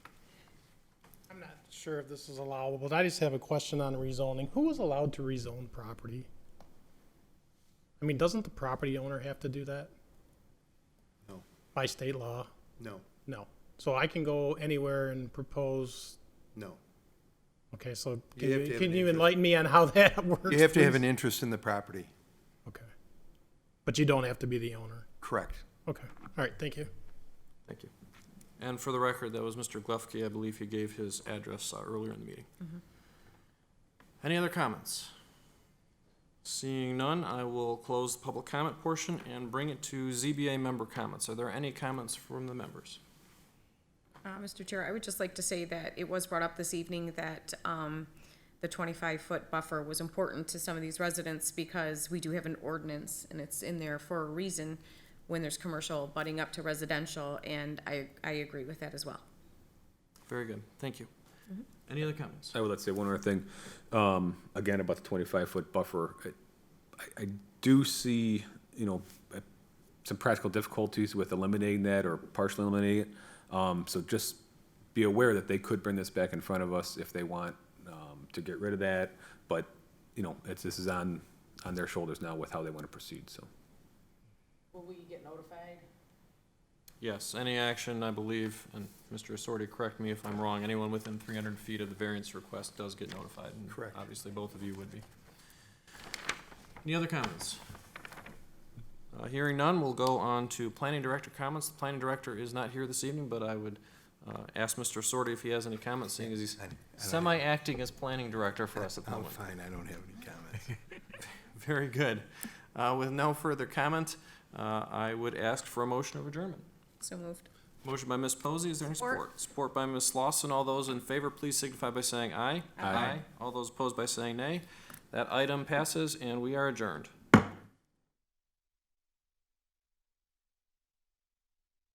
sure if this is allowable, but I just have a question on rezoning. Who is allowed to rezone property? I mean, doesn't the property owner have to do that No, by state law? no, No. So I can go anywhere and propose, no. okay, so You can have to you, have can an you interest. enlighten me on how that works? You have to have please? an interest in the property. Okay. But you don't have to be the owner. Correct. Okay, all right, thank you. Thank you. And for the record, that was Mr. Glufke. I believe he gave his address uh, earlier in the meeting. Any other comments? Seeing none, I will close the public comment portion and bring it to ZBA member comments. Are there any comments from the members? Uh, Mr. Chair, I would just like to say that it was brought up this evening that, um, the twenty-five foot buffer was important to some of these residents because we do have an ordinance and it's in there for a reason when there's commercial butting up to residential, and I, I agree with that as well. Very good, thank you. Any other comments? I would like to say one other thing, um, again, about the twenty-five foot buffer. I- I, I do see, you know, uh, some practical difficulties with eliminating that or partially eliminating it. Um, so just be aware that they could bring this back in front of us if they want, um, to get rid of that. But, you know, it's, this is on, on their shoulders now with how they want to proceed, so. Will we get notified? Yes, any action, I believe, and Mr. Assorti, correct me if I'm wrong, anyone within three hundred feet of the variance request does get notified. and Correct. Obviously, both of you would be. Any other comments? Uh, hearing none, we'll go on to planning director comments. The planning director is not here this evening, but I would, uh, ask Mr. Assorti if he has any comments, seeing as he's I- I don't have- semi-acting as planning director for us at the I'm moment. fine, I don't have any comments. Oh, Very good. Uh, with no further comment, uh, I would ask for a motion of adjournment. So moved. Motion by Ms. Posey, is there any support? Support. Support by Ms. Lawson, all those in favor, please signify by saying aye. Aye. All those opposed by saying nay. That item passes and we are adjourned.